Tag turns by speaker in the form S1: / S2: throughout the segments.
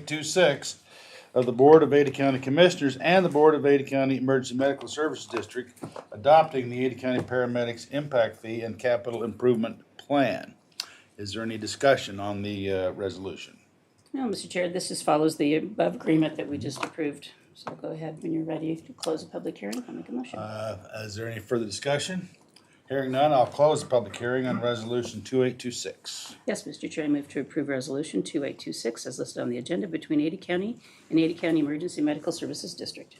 S1: 2826 of the Board of Ada County Commissioners and the Board of Ada County Emergency Medical Services District adopting the Ada County Paramedics Impact Fee and Capital Improvement Plan. Is there any discussion on the uh, resolution?
S2: No, Mr. Chair, this just follows the above agreement that we just approved. So go ahead when you're ready to close the public hearing, I'll make a motion.
S1: Uh, Is there any further discussion? Hearing none, I'll close the public hearing on Resolution 2826.
S2: Yes, Mr. Chair, I move to approve Resolution 2826 as listed on the agenda between Ada County and Ada County Emergency Medical Services District.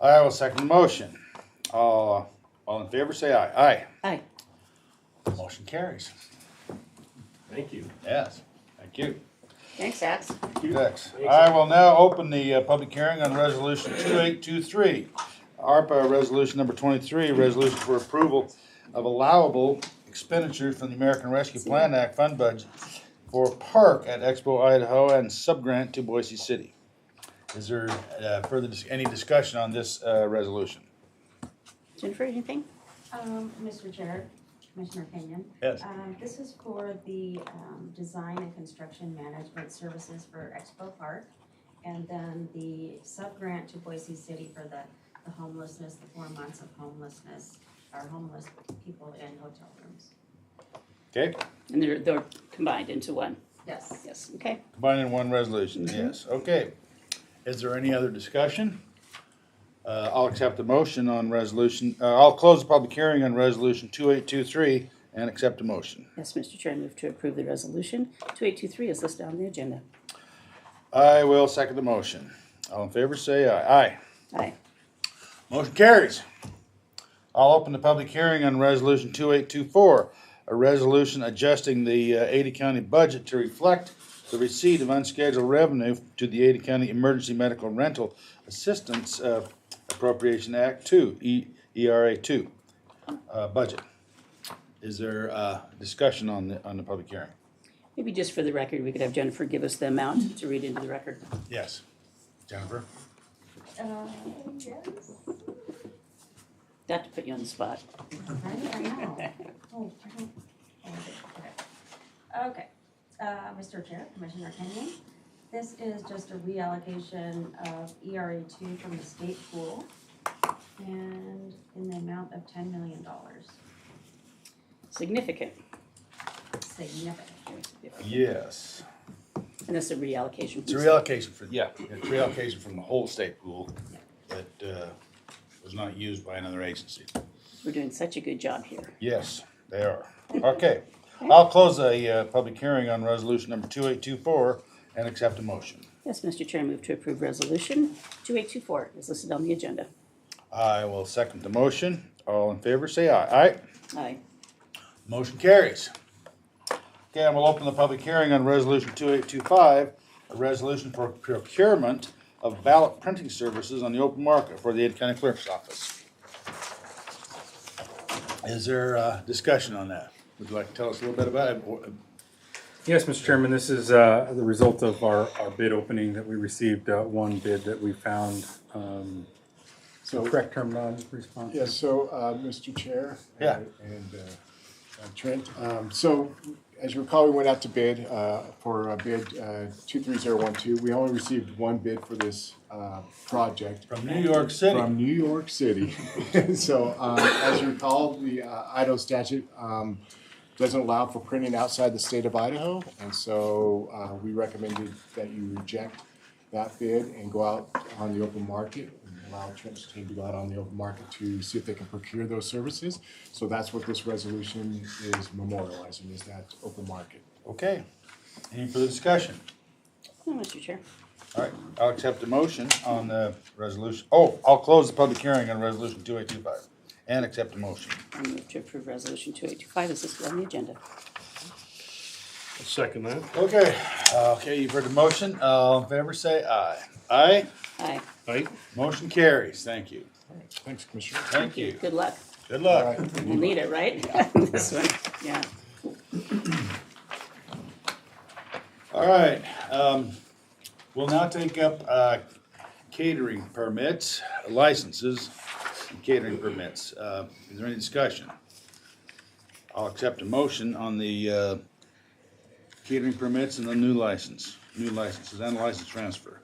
S1: I will second the motion. All all in favor, say aye.
S2: Aye.
S1: Aye. Motion carries.
S3: Thank you.
S1: Yes, thank you.
S2: Thanks, Ax.
S1: Next, I will now open the uh, public hearing on resolution two eight two three. ARPA resolution number twenty-three, resolution for approval of allowable expenditures from the American Rescue Plan Act fund budget for park at Expo Idaho and subgrant to Boise City. Is there uh, further, dis- any discussion on this uh, resolution?
S2: Jennifer, anything?
S4: Um, Mr. Chair, Commissioner Kenyon.
S1: Yes.
S4: Um, this is for the, um, design and construction management services for Expo Park. And then the sub-grant to Boise City for the, the homelessness, the four months of homelessness, our homeless people in hotel rooms.
S1: Okay,
S2: And they're, they're combined into one.
S4: Yes.
S2: Yes, okay.
S1: combined in one resolution, yes, okay. Is there any other discussion? Uh, I'll accept the motion on resolution, uh, I'll close the public hearing on resolution two eight two three and accept the motion.
S2: Yes, Mr. Chair, I move to approve the Resolution 2823 as listed on the agenda.
S1: I will second the motion. All in favor, say aye. Aye.
S2: Aye.
S1: Motion carries. I'll open the public hearing on resolution two eight two four, a resolution adjusting the uh, Ada County budget to reflect the receipt of unscheduled revenue to the Ada County Emergency Medical Rental Assistance uh, Appropriation Act two, E, ERA two, uh, budget. Is there, uh, discussion on the, on the public hearing?
S2: Maybe just for the record, we could have Jennifer give us the amount to read into the record.
S1: Yes. Jennifer?
S4: Uh, yes.
S2: Not to put you on the spot.
S4: Right, I know. Oh, I don't- oh, Okay, Okay. uh, Mr. Chair, Commissioner Kenyon, this is just a reallocation of ERA two from the state pool and in the amount of ten million dollars,
S2: Significant.
S4: significant.
S2: Very significant.
S1: Yes.
S2: And that's a reallocation.
S1: It's a reallocation for, yeah, it's reallocation from the whole state pool that uh, was not used by another agency.
S2: We're doing such a good job here.
S1: Yes, they are. Okay, I'll close the public hearing on resolution number 2824 and accept a motion.
S2: Yes, Mr. Chair, I move to approve Resolution 2824 as listed on the agenda.
S1: I will second the motion. All in favor, say aye. Aye?
S2: Aye.
S1: Motion carries. Okay, and we'll open the public hearing on Resolution 2825, a resolution for procurement of ballot printing services on the open market for the Ada County Clerk's Office. Is there uh, discussion on that? Would you like to tell us a little bit about it? Or-
S3: Yes, Mr. Chairman, this is uh, the result of our, our bid opening that we received, uh, one bid that we found. um, So correct term, non-responsive?
S5: Yes, so, uh, Mr. Chair. uh,
S1: Yeah.
S5: And uh, uh, Trent, um, so as you recall, we went out to bid uh, for uh, bid uh, 23012. We only received one bid for this uh, project
S1: From New York City.
S5: from New York City. So um, as you recall, the uh, Idaho statute um, doesn't allow for printing outside the state of Idaho. And so uh, we recommended that you reject that bid and go out on the open market and allow Trent's team to go out on the open market to see if they can procure those services. So that's what this resolution is memorializing, is that open market.
S1: Okay. Any further discussion?
S2: No, Mr. Chair.
S1: All right, I'll accept the motion on the resolution. Oh, I'll close the public hearing on Resolution 2825 and accept the motion.
S2: I move to approve Resolution 2825 as listed on the agenda.
S6: Second that.
S1: Okay, uh, okay, you've heard the motion. Uh, in favor, say aye. Aye?
S2: Aye.
S6: Aye.
S1: Motion carries. Thank you.
S5: Thanks, Commissioner.
S1: Thank you.
S2: Good luck.
S1: Good
S5: All
S1: luck.
S5: right.
S2: We'll need it, right? This one, yeah.
S1: All right, um, we'll now take up, uh, catering permits, licenses, and catering permits. Uh, is there any discussion? I'll accept a motion on the, uh, catering permits and the new license. new licenses and license transfer.